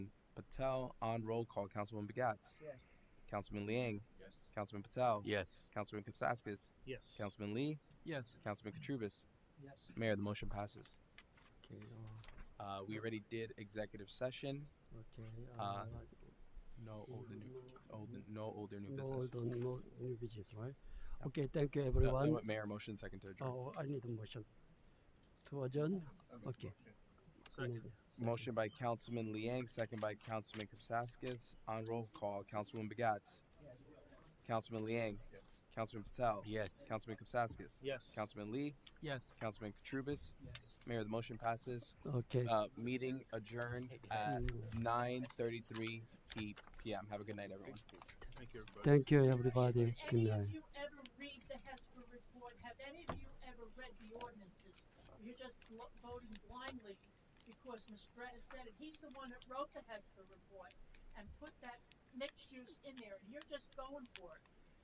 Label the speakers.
Speaker 1: Patel. On roll call, Councilman Begats.
Speaker 2: Yes.
Speaker 1: Councilman Liang.
Speaker 3: Yes.
Speaker 1: Councilman Patel.
Speaker 4: Yes.
Speaker 1: Councilman Kapsaskis.
Speaker 2: Yes.
Speaker 1: Councilman Lee.
Speaker 4: Yes.
Speaker 1: Councilman Katrubis.
Speaker 2: Yes.
Speaker 1: Mayor, the motion passes. Uh, we already did executive session.
Speaker 3: Okay.
Speaker 1: Uh,
Speaker 3: Uh,
Speaker 1: No older new, old,
Speaker 3: no,
Speaker 1: no older new
Speaker 3: no,
Speaker 1: business.
Speaker 3: don't- no new business, right?
Speaker 1: Yeah.
Speaker 3: Okay. Thank you,
Speaker 1: Uh,
Speaker 3: everyone.
Speaker 1: Mayor, motion second to adjourn.
Speaker 3: oh, I need a motion to adjourn. Okay. Maybe.
Speaker 1: Motion by Councilman Liang, second by Councilman Kapsaskis. On roll call, Councilwoman Begats.
Speaker 2: Yes.
Speaker 1: Councilman Liang. Councilman Patel.
Speaker 4: Yes.
Speaker 1: Councilman Kapsaskis.
Speaker 2: Yes.
Speaker 1: Councilman Lee.
Speaker 4: Yes.
Speaker 1: Councilman Katrubis.
Speaker 2: Yes.
Speaker 1: Mayor, the motion passes.
Speaker 3: Okay.
Speaker 1: Uh, meeting adjourned at
Speaker 3: Mm.
Speaker 1: 9:33 p- p.m. Have a good night, everyone.
Speaker 2: Thank you, everybody.
Speaker 3: Thank you, everybody.
Speaker 5: Did
Speaker 3: Good
Speaker 5: any
Speaker 3: night.
Speaker 5: of you ever read the HESPA report? Have any of you ever read the ordinances? You're just bl- voting blindly because Mr. Brett said it. He's the one that wrote the HESPA report and put that mixed use in there. You're just going for it.